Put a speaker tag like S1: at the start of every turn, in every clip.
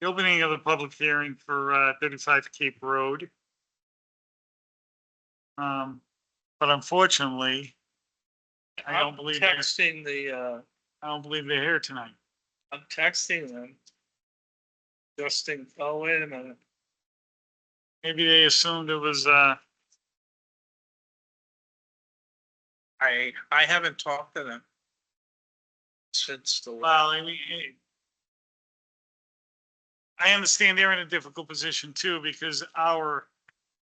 S1: The opening of the public hearing for uh, 35 Cape Road. Um, But unfortunately, I don't
S2: I'm
S1: believe they're-
S2: Texting the, uh,
S1: I don't believe they're here tonight.
S2: I'm texting them. Justin, oh, wait a minute.
S1: Maybe they assumed it was, uh,
S2: I, I haven't talked to them. Since the,
S1: well, I mean, it- I understand they're in a difficult position too, because our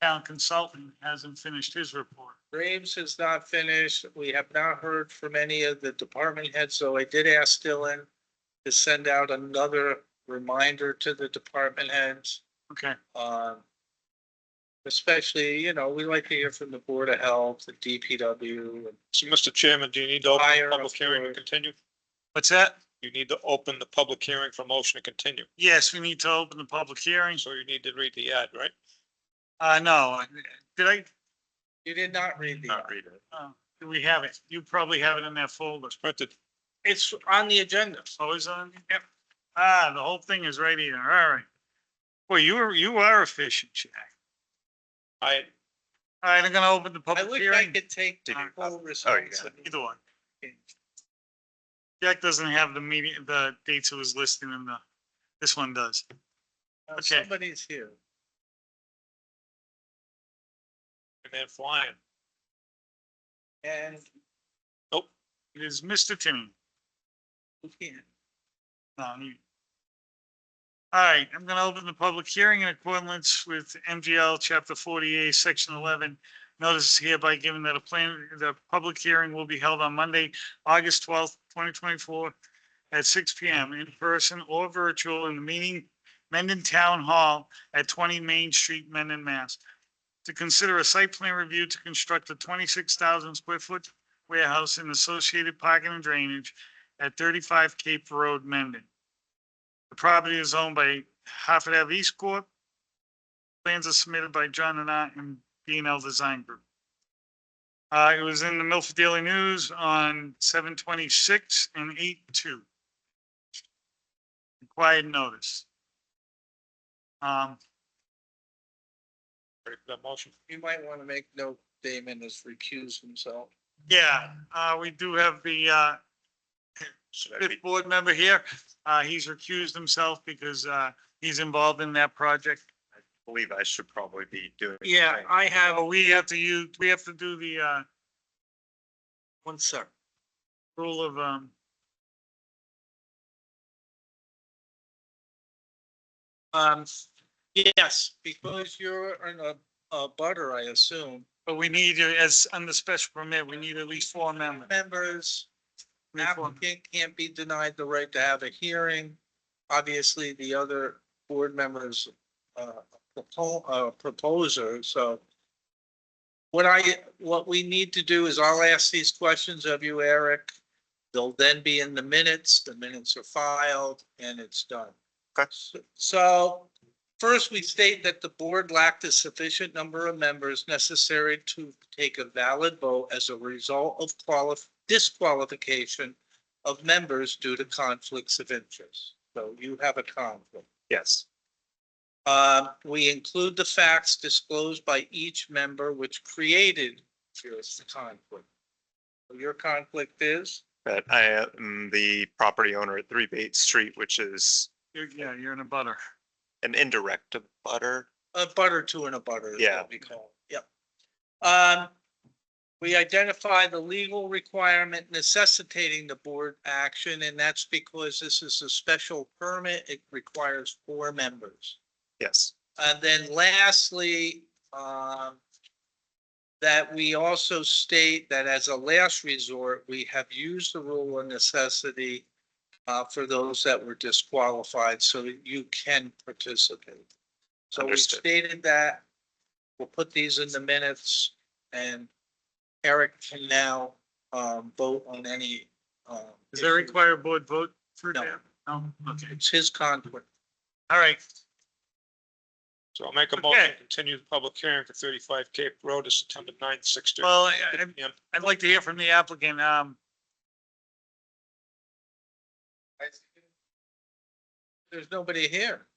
S1: town consultant hasn't finished his report.
S2: Graves is not finished. We have not heard from any of the department heads, so I did ask Dylan to send out another reminder to the department heads.
S1: Okay,
S2: Um, especially, you know, we like to hear from the Board of Health, the DPW, and
S3: So, Mr. Chairman, do you need to open
S2: Fire,
S3: the public hearing
S2: of
S3: and
S2: course.
S3: continue?
S1: what's that?
S3: You need to open the public hearing for motion to continue.
S1: Yes, we need to open the public hearing.
S3: So you need to read the ad, right?
S1: Uh, no, did I,
S2: you did not read the.
S3: read it.
S1: uh, do we have it? You probably have it in that folder.
S3: Printed.
S2: It's on the agenda.
S1: Always on? Yep. Ah, the whole thing is right here. All right. Well, you are, you are efficient, Jack.
S3: I,
S1: All right, I'm gonna open the
S2: I
S1: public
S2: wish I
S1: hearing.
S2: could take
S1: Did you-
S2: full
S3: got it.
S2: responsibility.
S1: Either one. Jack doesn't have the meeting, the dates it was listed in the, this one does.
S2: Now,
S1: Okay.
S2: Somebody's here.
S3: man flying.
S2: And
S1: It is Mr. Timmy.
S2: we can't.
S1: No, you- All right, I'm gonna open the public hearing in accordance with MGL Chapter forty-eight, Section eleven. Notice is hereby given that a plan, the public hearing will be held on Monday, August twelfth, twenty twenty-four at six P M in person or virtual in the meeting, Mendon Town Hall at twenty Main Street, Mendon, Mass. To consider a site plan review to construct a twenty-six thousand square foot warehouse and associated parking and drainage at thirty-five Cape Road, Mendon. The property is owned by Hartford Ave East Corp. Plans are submitted by John and I and B and L Design Group. Uh, it was in the Milford Daily News on seven twenty-six and eight two. Required notice. Um,
S3: Ready for that motion?
S2: You might want to make note Damon has recused himself.
S1: yeah, uh, we do have the, uh,
S3: Should I
S1: fifth
S3: read-
S1: board member here. Uh, he's recused himself because, uh, he's involved in that project.
S4: believe I should probably be doing.
S1: Yeah, I have, we have to use, we have to do the, uh,
S2: One sec.
S1: rule of, um,
S2: Um, yes, because you're in a, a butter, I assume.
S1: but we need, uh, as, under special permit, we need at least four amendments.
S2: Members,
S1: Three, four amendments.
S2: applicant can't be denied the right to have a hearing. Obviously, the other board members, uh, propo- uh, proposer, so. What I, what we need to do is I'll ask these questions of you, Eric. They'll then be in the minutes, the minutes are filed, and it's done.
S4: Okay.
S2: So first, we state that the board lacked a sufficient number of members necessary to take a valid vote as a result of qualif- disqualification of members due to conflicts of interest. So you have a conflict.
S4: Yes,
S2: Um, we include the facts disclosed by each member which created your conflict. Your conflict is,
S4: but I am the property owner at Three Bates Street, which is
S1: You're- Yeah, you're in a butter.
S4: an indirect butter.
S2: a butter two and a butter. is
S4: Yeah.
S2: what We call, it. yep. Um, we identify the legal requirement necessitating the board action, and that's because this is a special permit. It requires four members.
S4: Yes,
S2: And then lastly, um, that we also state that as a last resort, we have used the rule of necessity uh, for those that were disqualified, so that you can participate. So we
S4: Understood.
S2: stated that. We'll put these in the minutes and Eric can now, um, vote on any, um.
S1: Is there a
S2: issue.
S1: required board vote for
S2: No.
S1: that? No, okay.
S2: It's his conflict.
S1: All right,
S3: So I'll make a motion
S1: Okay.
S3: to continue the public hearing for thirty-five Cape Road to September ninth, six thirty.
S1: well, I- I- I'd like to hear from the applicant, um,
S2: There's nobody here.